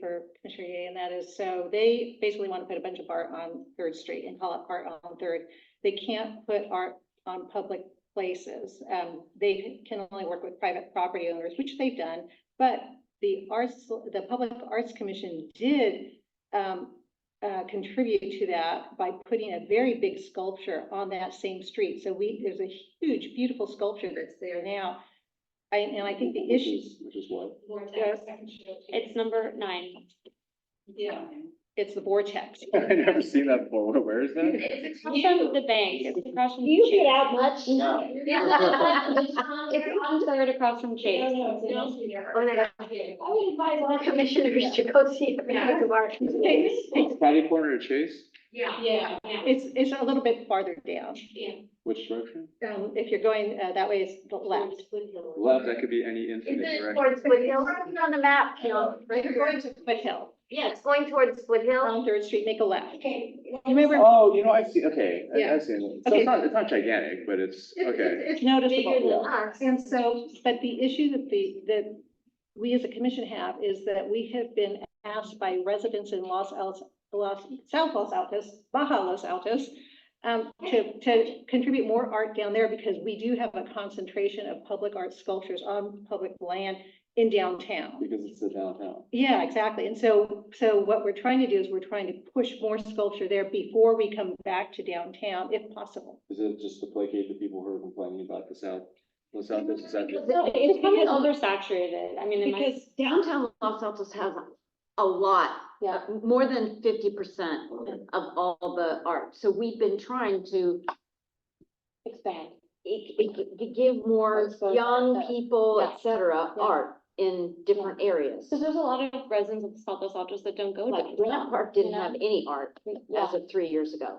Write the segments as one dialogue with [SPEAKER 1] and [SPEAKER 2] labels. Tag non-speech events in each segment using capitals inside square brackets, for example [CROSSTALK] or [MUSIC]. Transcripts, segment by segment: [SPEAKER 1] for Commissioner Yeh, and that is, so they basically want to put a bunch of art on Third Street and call it Art on Third. They can't put art on public places. Um, they can only work with private property owners, which they've done. But the arts, the Public Arts Commission did, um, uh, contribute to that by putting a very big sculpture on that same street. So we, there's a huge, beautiful sculpture that's there now. I- And I think the
[SPEAKER 2] Which
[SPEAKER 1] issues.
[SPEAKER 2] is- Which is what? [LAUGHS]
[SPEAKER 1] Yes.
[SPEAKER 3] It's number nine.
[SPEAKER 1] Yeah. It's the vortex. [LAUGHS]
[SPEAKER 2] I never seen that before. [LAUGHS] Where is that?
[SPEAKER 3] It's across from the bank. It's across from.
[SPEAKER 4] You
[SPEAKER 3] Chase.
[SPEAKER 4] get out much? [LAUGHS] No.
[SPEAKER 3] It's on third across from Chase.
[SPEAKER 4] Oh, my God. I would advise all commissioners to go see the man of art.
[SPEAKER 2] It's Patty Corner to Chase?
[SPEAKER 3] Yeah.
[SPEAKER 1] Yeah. It's, it's a little bit farther down.
[SPEAKER 2] Which direction?
[SPEAKER 1] Um, if you're going, uh, that way is the left.
[SPEAKER 2] Left, that could be any infinite
[SPEAKER 4] it
[SPEAKER 2] direction.
[SPEAKER 4] towards Split Hill? On the map, you know,
[SPEAKER 1] Right, you're going to Foothill,
[SPEAKER 4] it's going towards Split
[SPEAKER 3] Um,
[SPEAKER 4] Hill.
[SPEAKER 1] on Third Street, make a left.
[SPEAKER 4] Okay.
[SPEAKER 1] You may remember,
[SPEAKER 2] Oh, you know, I see, okay, I-
[SPEAKER 1] Yeah.
[SPEAKER 2] I see. it. So
[SPEAKER 1] Okay.
[SPEAKER 2] it's not, it's not gigantic, but it's,
[SPEAKER 1] it's,
[SPEAKER 2] okay.
[SPEAKER 1] it's it's noticeable.
[SPEAKER 4] us.
[SPEAKER 1] And so, but the issue that the, that we as a commission have is that we have been asked by residents in Los Altos, Los, South Los Altos, Baja Los Altos, um, to, to contribute more art down there because we do have a concentration of public art sculptures on public land in downtown.
[SPEAKER 2] Because it's the downtown.
[SPEAKER 1] Yeah, exactly. And so, so what we're trying to do is we're trying to push more sculpture there before we come back to downtown, if possible.
[SPEAKER 2] Is it just to placate the people who are complaining about the south? The south is, is that the-
[SPEAKER 3] No, It's becoming oversaturated. I mean, in my,
[SPEAKER 5] Because downtown Los Altos has a lot, uh,
[SPEAKER 1] Yeah.
[SPEAKER 5] more than fifty percent of all the art. So we've been trying to
[SPEAKER 3] expand.
[SPEAKER 5] e- e- g- give more
[SPEAKER 1] Exposure,
[SPEAKER 5] young
[SPEAKER 6] uh,
[SPEAKER 1] yeah.
[SPEAKER 5] people,
[SPEAKER 3] Yeah.
[SPEAKER 5] et cetera,
[SPEAKER 1] Yeah.
[SPEAKER 5] art in different areas.
[SPEAKER 3] So there's a lot of residents of South Los Altos that don't go
[SPEAKER 5] Like
[SPEAKER 3] downtown.
[SPEAKER 5] Grant Park didn't
[SPEAKER 3] Yeah.
[SPEAKER 5] have any art
[SPEAKER 3] Yeah.
[SPEAKER 5] as of three years ago.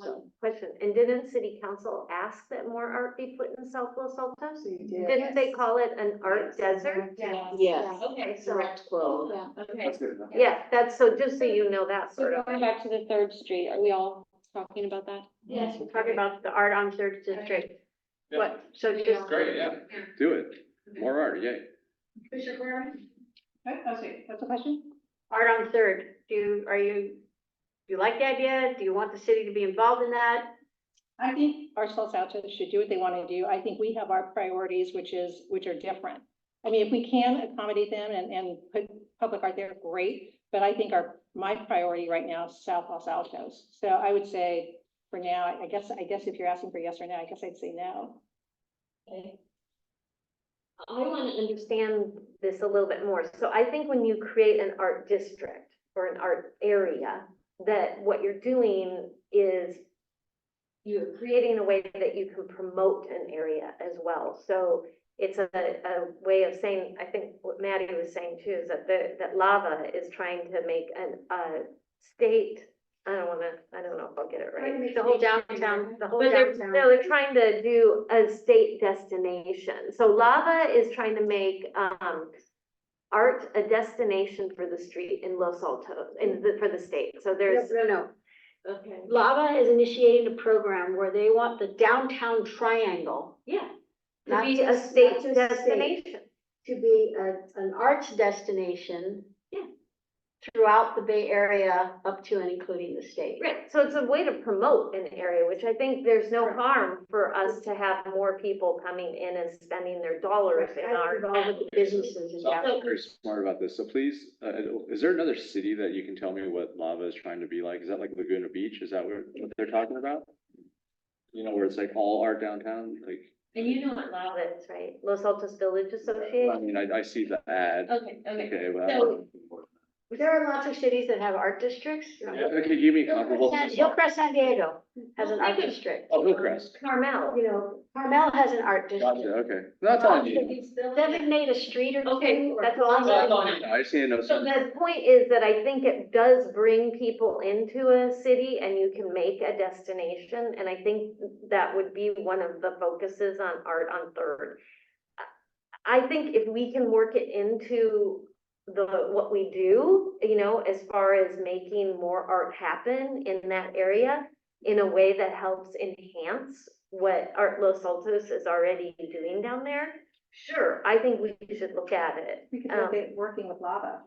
[SPEAKER 5] So
[SPEAKER 4] Question, and didn't city council ask that more art be put in South Los Altos? Didn't they
[SPEAKER 7] Yes.
[SPEAKER 4] call it an art desert?
[SPEAKER 7] Yeah.
[SPEAKER 5] Yes.
[SPEAKER 7] Okay, so,
[SPEAKER 5] Direct quote.
[SPEAKER 3] Yeah.
[SPEAKER 7] okay.
[SPEAKER 2] That's good enough.
[SPEAKER 4] Yeah, that's, so just so you know that
[SPEAKER 3] So
[SPEAKER 4] sort of,
[SPEAKER 3] going back to the third street, are we all talking about that?
[SPEAKER 7] Yes.
[SPEAKER 4] talking about the art on Third District. What, so just.
[SPEAKER 2] Great, yeah, do it. More art, yay.
[SPEAKER 7] Commissioner Warren?
[SPEAKER 1] What's the question?
[SPEAKER 4] Art on Third, do you, are you, do you like the idea? Do you want the city to be involved in that?
[SPEAKER 1] I think our South Altos should do what they want to do. I think we have our priorities, which is, which are different. I mean, if we can accommodate them and, and put public art there, great. But I think our, my priority right now is South Los Altos. So I would say for now, I- I guess, I guess if you're asking for yes or no, I guess I'd say no.
[SPEAKER 4] I want to understand this a little bit more. So I think when you create an art district or an art area, that what you're doing is you're creating a way that you can promote an area as well. So it's a, a way of saying, I think what Maddie was saying too, is that the, that Lava is trying to make an, a state, I don't wanna, I don't know if I'll get it
[SPEAKER 7] Trying to
[SPEAKER 4] right.
[SPEAKER 7] make
[SPEAKER 4] The whole
[SPEAKER 7] it nationwide.
[SPEAKER 4] downtown, the whole
[SPEAKER 7] But they're-
[SPEAKER 4] downtown. No, they're trying to do a state destination. So Lava is trying to make, um, art a destination for the street in Los Altos, in the, for the state. So there's,
[SPEAKER 6] No, no,
[SPEAKER 7] Okay.
[SPEAKER 6] no. Lava is initiating a program where they want the downtown triangle
[SPEAKER 4] yeah, to
[SPEAKER 6] Not
[SPEAKER 4] be
[SPEAKER 6] to-
[SPEAKER 4] a state
[SPEAKER 6] not to state.
[SPEAKER 4] destination.
[SPEAKER 6] to be a, an arts destination.
[SPEAKER 4] Yeah.
[SPEAKER 6] Throughout the Bay Area, up to and including the state.
[SPEAKER 4] Right, so it's a way to promote an area, which I think there's no harm for us to have more people coming in and spending their dollars in
[SPEAKER 6] Kind of
[SPEAKER 4] our.
[SPEAKER 6] involved with the Businesses and
[SPEAKER 2] So
[SPEAKER 4] uh,
[SPEAKER 6] down.
[SPEAKER 2] I'm very smart about this, so please, uh, is there another city that you can tell me what lava is trying to be like? Is that like Laguna Beach? Is that what what they're talking about? You know, where it's like all art downtown, like,
[SPEAKER 7] And you know what lava
[SPEAKER 4] outlets, right, Los Altos Village
[SPEAKER 2] I
[SPEAKER 4] Association,
[SPEAKER 2] mean, I, I see the ad.
[SPEAKER 7] Okay, okay.
[SPEAKER 2] Okay, well.
[SPEAKER 7] So-
[SPEAKER 6] There are lots of cities that have art districts.
[SPEAKER 2] Okay, give me comparable.
[SPEAKER 6] Hillcrest San Diego has an art
[SPEAKER 7] Think of-
[SPEAKER 6] district.
[SPEAKER 2] Oh, Hillcrest.
[SPEAKER 4] Carmel,
[SPEAKER 6] You know, Carmel has an art
[SPEAKER 2] Gotcha,
[SPEAKER 6] district.
[SPEAKER 2] okay. That's all I need.
[SPEAKER 6] Designate a street or two.
[SPEAKER 7] Okay,
[SPEAKER 6] or
[SPEAKER 4] that's all I'm
[SPEAKER 6] plaza.
[SPEAKER 7] going
[SPEAKER 2] I just need to know
[SPEAKER 4] So
[SPEAKER 2] something.
[SPEAKER 4] the point is that I think it does bring people into a city and you can make a destination. And I think that would be one of the focuses on art on Third. I think if we can work it into the, what we do, you know, as far as making more art happen in that area in a way that helps enhance what Art Los Altos is already doing down there, sure, I think we should look at it.
[SPEAKER 1] We could
[SPEAKER 4] look
[SPEAKER 1] at working with lava.